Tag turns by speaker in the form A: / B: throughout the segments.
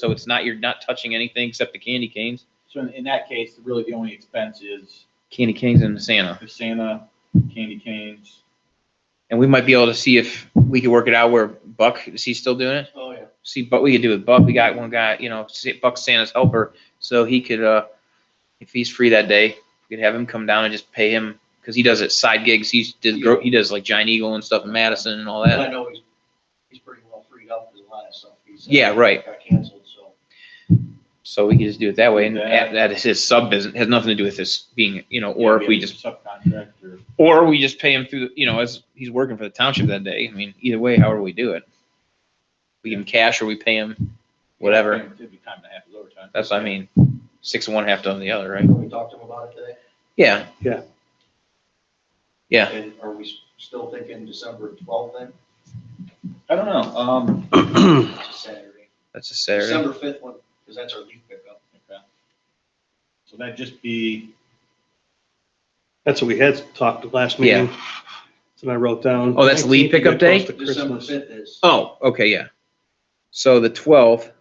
A: So it's not, you're not touching anything except the candy canes,
B: So in, in that case, really the only expense is
A: candy canes and the Santa.
B: the Santa, candy canes.
A: And we might be able to see if we could work it out where Buck, is he still doing it?
B: Oh, yeah.
A: See, but we could do with Buck. We got one guy, you know, Sa- Buck Santa's helper, so he could, uh, if he's free that day, we could have him come down and just pay him because he does it side gigs. He does gro- he does like Giant Eagle and stuff in Madison and all
C: I
A: that.
C: know he's, he's pretty well freed up with a lot of stuff. He's, uh,
A: Yeah, right.
C: Got canceled, so.
A: So we could just do it that way, and
B: Yeah.
A: that, that is his sub business. Has nothing to do with this being, you know, or if we just
B: Subcontract or.
A: or we just pay him through, the- you know, as he's working for the township that day. I mean, either way, however we do it, we give him cash or we pay him, whatever.
B: It'd be time and a half is overtime.
A: That's what I mean. Six of one, half done of the other, right?
C: We talked to him about it today.
A: Yeah.
D: Yeah.
A: Yeah.
C: And are we s- still thinking December twelfth then?
B: I don't know, um,
C: It's a Saturday.
A: That's a Saturday.
C: December fifth one, because that's our leaf pickup.
B: okay. So that'd just be,
D: That's what we had talked last meeting. And I wrote down.
A: Oh, that's lead pickup day?
D: Close to
C: December
D: Christmas.
C: fifth is.
A: Oh, okay, yeah. So the twelfth.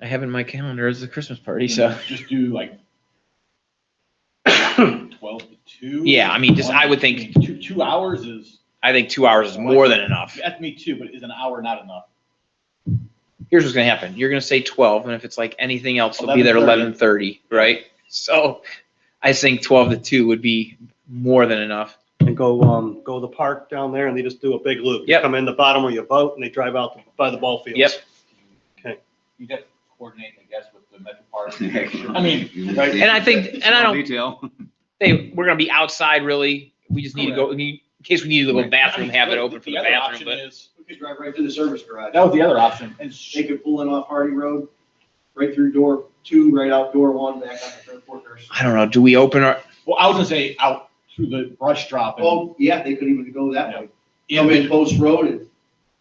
A: I have in my calendar is the Christmas party, so,
B: just do like twelve to two.
A: Yeah, I mean, just- I would
B: One-
A: think-
B: mean, Two, two hours is,
A: I think two hours is more than enough.
B: that's me too, but is an hour not enough?
A: Here's what's gonna happen. You're gonna say twelve, and if it's like anything else, it'll be there eleven
B: 11:30.
A: thirty, right? So I think twelve to two would be more than enough.
D: And go, um, go to the park down there and they just do a big loop. You
A: Yep.
D: Come in the bottom of your boat and they drive out by the ball fields.
A: Yep.
B: You'd have to coordinate, I guess, with the Metro Park. I mean, right?
A: And I think, and I don't,
E: Detail.
A: they, we're gonna be outside really. We just need to go, we need- in case we need a little bathroom, have it open for the
B: other
A: bathroom,
B: option
A: but.
B: is-
C: We could drive right through the service garage.
B: That was the other option, and sh-
C: They could pull in off Hardy Road, right through door two, right out door one, back on the third quarters.
A: I don't know. Do we open our,
B: Well, I was gonna say out through the brush drop and
C: Oh, yeah, they could even go that way. Come in
B: in-
C: Post Road and.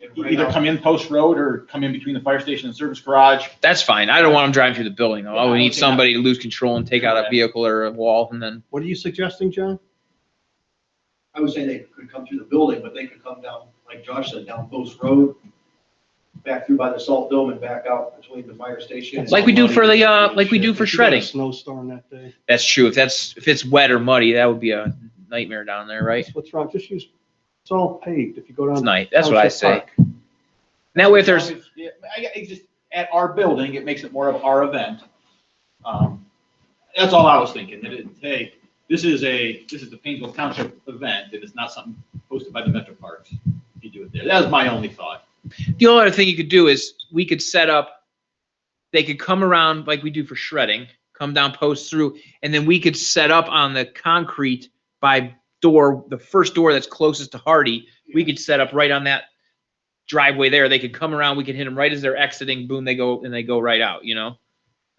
C: and right
B: either
C: out.
B: come in post road or come in between the fire station and service garage.
A: That's fine. I don't want them driving through the building though. I would
B: Yeah,
A: need
B: okay.
A: somebody to lose control and take out a vehicle or a wall and then,
D: What are you suggesting, John?
C: I would say they could come through the building, but they could come down, like Josh said, down Post Road, back through by the Salt Dome and back out between the fire station. and-
A: like we do for the, uh, like we do for
D: If you got
A: shredding.
D: a Snowstorm that day.
A: That's true. If that's, if it's wet or muddy, that would be a nightmare down there, right?
D: That's What's wrong? Just use, it's all paved if you go down.
A: It's night. That's what I
D: Township
A: say.
D: Park.
A: Now if there's,
B: Yeah, I, I just, at our building, it makes it more of our event. Um, That's all I was thinking, that it, hey, this is a, this is the Painesville Township event, and it's not something hosted by the Metro Parks. You do it there, that was my only thought.
A: the only other thing you could do is we could set up, they could come around like we do for shredding, come down, post through, and then we could set up on the concrete by door, the first door that's closest to Hardy. We could set up right on that driveway there. They could come around. We could hit them right as they're exiting. Boom, they go and they go right out, you know?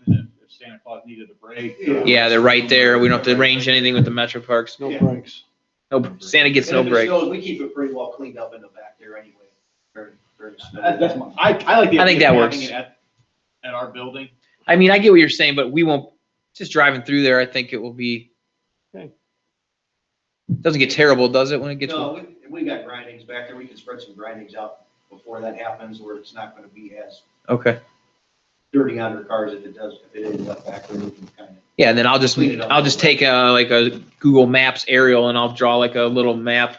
B: And then If Santa Claus needed a break. uh,
C: Yeah.
A: Yeah, they're right there. We don't have to arrange anything with the Metro Parks.
D: No
C: Yeah.
D: breaks.
A: No, Santa gets
C: And
A: no
C: if it
A: break.
C: snows, We keep it pretty well cleaned up in the back there anyway. during- during snow.
B: That- That's my, I, I like the.
A: I think that
B: idea of
A: works.
B: having it At at our building.
A: I mean, I get what you're saying, but we won't, just driving through there, I think it will be.
D: Okay.
A: Doesn't get terrible, does it, when it gets?
C: No, we, we got grindings back there, we can spread some grindings out before that happens, where it's not gonna be as
A: Okay.
C: dirty on their cars if it does, if it ends up back there, we can kind of.
A: Yeah, and then I'll just,
C: Clean it up.
A: I'll just take a, like a Google Maps aerial and I'll draw like a little map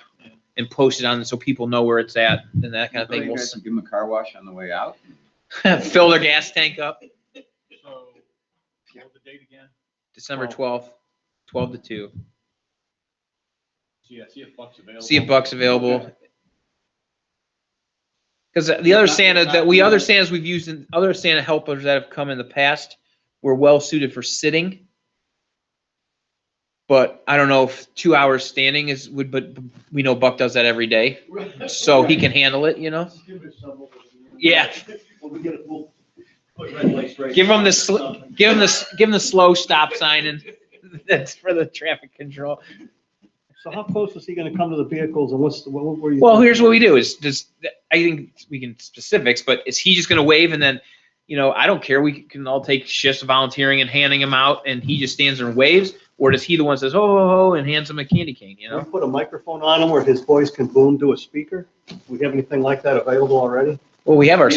A: and post it on so people know where it's at and that kind of thing. We'll
E: Give them a car wash on the way out.
A: s- Fill their gas tank up,
B: So, what was the date again?
A: December twelfth, twelve to two.
B: So, yeah, see if Buck's available.
A: See if Buck's available. Because the other Santa that we, other Santas we've used and other Santa helpers that have come in the past were well suited for sitting. But I don't know if two hours standing is, would, but we know Buck does that every day, so he can handle it, you know?
C: Give us some of it.
A: Yeah.
C: When we get it, we'll put red lights right
A: Give 'em the
C: there
A: sli-
C: or something.
A: Give him this, give him the slow stop sign and that's for the traffic control.
D: So how close is he gonna come to the vehicles and what's, the- what what were you?
A: Well, here's
D: thinking?
A: what we do is does, I think we can specifics, but is he just gonna wave and then, you know, I don't care, we can all take shifts volunteering and handing him out and he just stands there and waves? Or does he the one that says, oh, oh, oh, and hands him a candy cane, you
D: Can we
A: know?
D: put a microphone on him where his voice can boom to a speaker? Do we have anything like that available already?
A: Well, we have our